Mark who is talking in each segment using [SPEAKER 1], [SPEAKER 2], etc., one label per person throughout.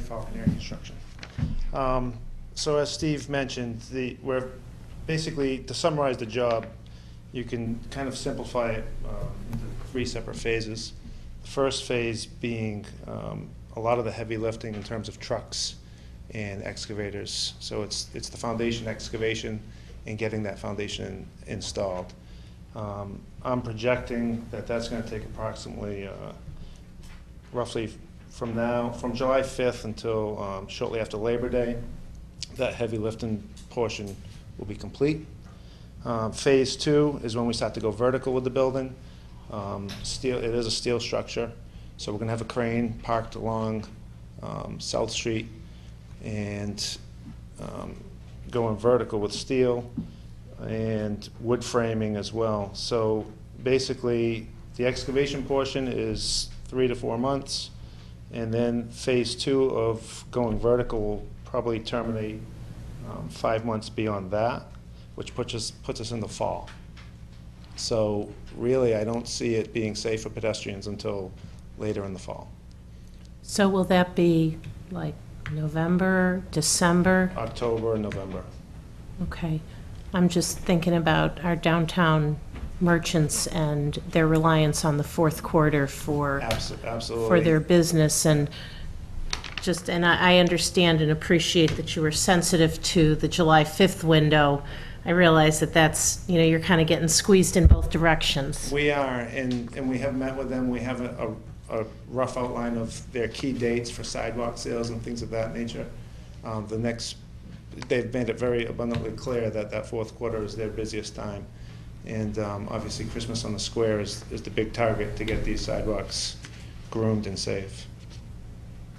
[SPEAKER 1] Fall Engineering Construction. Um, So as Steve mentioned, the, we're, basically, to summarize the job, you can kind of simplify it um, into three separate phases. The First phase being um, a lot of the heavy lifting in terms of trucks and excavators. So it's, it's the foundation excavation and getting that foundation installed. Um, I'm projecting that that's going to take approximately uh, roughly from now, from July 5th until um, shortly after Labor Day, that heavy lifting portion will be complete. Um, Phase two is when we start to go vertical with the building. Um, Steel, it is a steel structure, so we're going to have a crane parked along um, South Street and um, going vertical with steel and wood framing as well. So basically, the excavation portion is three to four months, and then phase two of going vertical will probably terminate um, five months beyond that, which puts us, puts us in the fall. So really, I don't see it being safe for pedestrians until later in the fall.
[SPEAKER 2] So will that be like November, December?
[SPEAKER 1] October and November.
[SPEAKER 2] Okay. I'm just thinking about our downtown merchants and their reliance on the fourth quarter for,
[SPEAKER 1] Abso- Absolutely.
[SPEAKER 2] for their business and just, and I, I understand and appreciate that you were sensitive to the July 5th window. I realize that that's, you know, you're kind of getting squeezed in both directions.
[SPEAKER 1] We are, and, and we have met with them, we have a, a a rough outline of their key dates for sidewalk sales and things of that nature. Um, the next, they've made it very abundantly clear that that fourth quarter is their busiest time. And, um, obviously Christmas on the Square is, is the big target to get these sidewalks groomed and safe.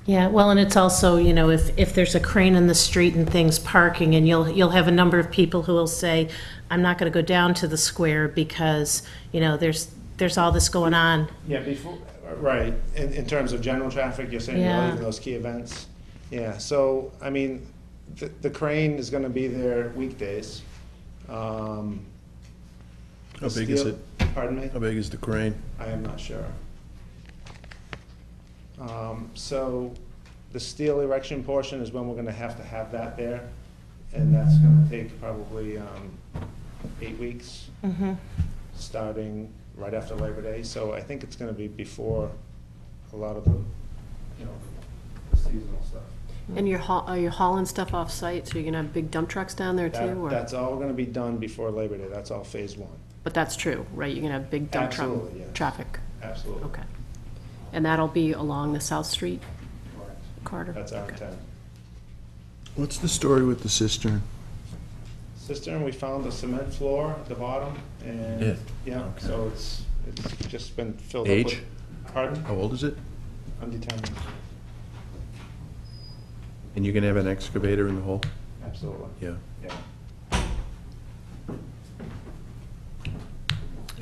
[SPEAKER 2] Yeah, well, and it's also, you know, if, if there's a crane in the street and things parking, and you'll, you'll have a number of people who will say, I'm not gonna go down to the square because, you know, there's, there's all this going on.
[SPEAKER 1] Yeah, before, right, in, in terms of general traffic, you're saying
[SPEAKER 2] Yeah.
[SPEAKER 1] you're leaving those key events? Yeah, so, I mean, the, the crane is gonna be there weekdays. Um,
[SPEAKER 3] How
[SPEAKER 1] the
[SPEAKER 3] big is
[SPEAKER 1] steel- Pardon me?
[SPEAKER 3] How big is the crane?
[SPEAKER 1] I am not sure. Um, so, the steel erection portion is when we're gonna have to have that there, and that's gonna take probably, um, eight weeks
[SPEAKER 4] Mm-hmm.
[SPEAKER 2] Mhm.
[SPEAKER 1] starting right after Labor Day, so I think it's gonna be before a lot of the, you know, the seasonal stuff.
[SPEAKER 4] And you're haul, are you hauling stuff off-site, so you're gonna have big dump trucks down there
[SPEAKER 1] That-
[SPEAKER 4] too, or?
[SPEAKER 1] That's all gonna be done before Labor Day, that's all phase one,
[SPEAKER 4] But that's true, right, you're gonna have big dump truck,
[SPEAKER 1] Absolutely, yes.
[SPEAKER 4] traffic,
[SPEAKER 1] absolutely.
[SPEAKER 4] okay. And that'll be along the South Street
[SPEAKER 1] Correct.
[SPEAKER 4] corridor?
[SPEAKER 1] That's our
[SPEAKER 4] Okay.
[SPEAKER 1] intent.
[SPEAKER 3] What's the story with the cistern?
[SPEAKER 1] Cistern, we found a cement floor at the bottom,
[SPEAKER 3] Yeah.
[SPEAKER 1] and, yeah, so it's, it's just been filled up
[SPEAKER 3] Age?
[SPEAKER 1] with. Pardon?
[SPEAKER 3] How old is it?
[SPEAKER 1] Undetermined,
[SPEAKER 3] And you're gonna have an excavator in the hole?
[SPEAKER 1] absolutely,
[SPEAKER 3] Yeah.
[SPEAKER 1] yeah.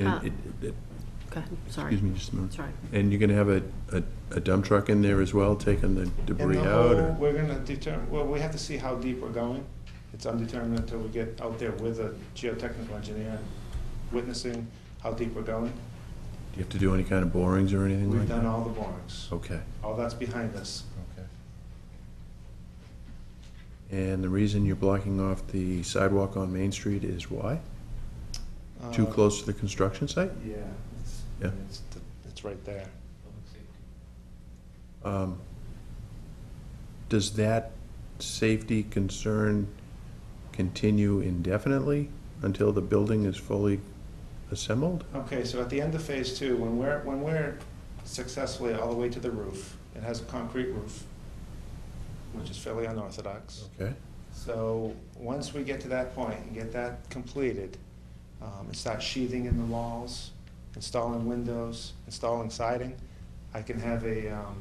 [SPEAKER 4] Ah.
[SPEAKER 3] And it, it,
[SPEAKER 4] Go ahead, Uh, sorry,
[SPEAKER 3] excuse me just a minute.
[SPEAKER 4] sorry.
[SPEAKER 3] And you're gonna have a, a, a dump truck in there as well, taking the
[SPEAKER 1] And
[SPEAKER 3] debris
[SPEAKER 1] the
[SPEAKER 3] out
[SPEAKER 1] hole,
[SPEAKER 3] or?
[SPEAKER 1] We're gonna determine, well, we have to see how deep we're going. It's undetermined until we get out there with a geotechnical engineer witnessing how deep we're going.
[SPEAKER 3] Do you have to do any kind of borings or anything
[SPEAKER 1] We've
[SPEAKER 3] like that? Oh.
[SPEAKER 1] done all the borings.
[SPEAKER 3] Okay,
[SPEAKER 1] All that's behind us.
[SPEAKER 3] okay. And the reason you're blocking off the sidewalk on Main Street is why? Too
[SPEAKER 1] Uh,
[SPEAKER 3] close to the construction site?
[SPEAKER 1] Yeah. it's-
[SPEAKER 3] Yeah.
[SPEAKER 1] It's, th- it's right there.
[SPEAKER 3] Um, Does that safety concern continue indefinitely until the building is fully assembled?
[SPEAKER 1] Okay, so at the end of phase two, when we're, when we're successfully all the way to the roof, it has a concrete roof, which is fairly unorthodox.
[SPEAKER 3] Okay.
[SPEAKER 1] So, once we get to that point and get that completed, um, and start sheathing in the walls, installing windows, installing siding, I can have a, um,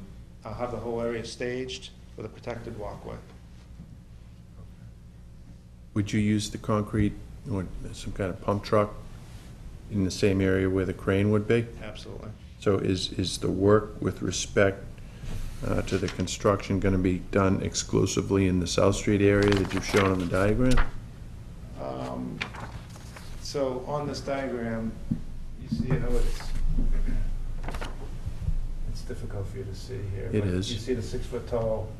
[SPEAKER 1] I'll have the whole area staged with a protected walkway.
[SPEAKER 3] Would you use the concrete or some kind of pump truck in the same area where the crane would be?
[SPEAKER 1] Absolutely.
[SPEAKER 3] So is, is the work with respect uh, to the construction going to be done exclusively in the South Street area that you've shown on the diagram?
[SPEAKER 1] Um, So, on this diagram, you see how it's, it's difficult for you to see here.
[SPEAKER 3] It
[SPEAKER 1] but
[SPEAKER 3] is.
[SPEAKER 1] You see the six-foot tall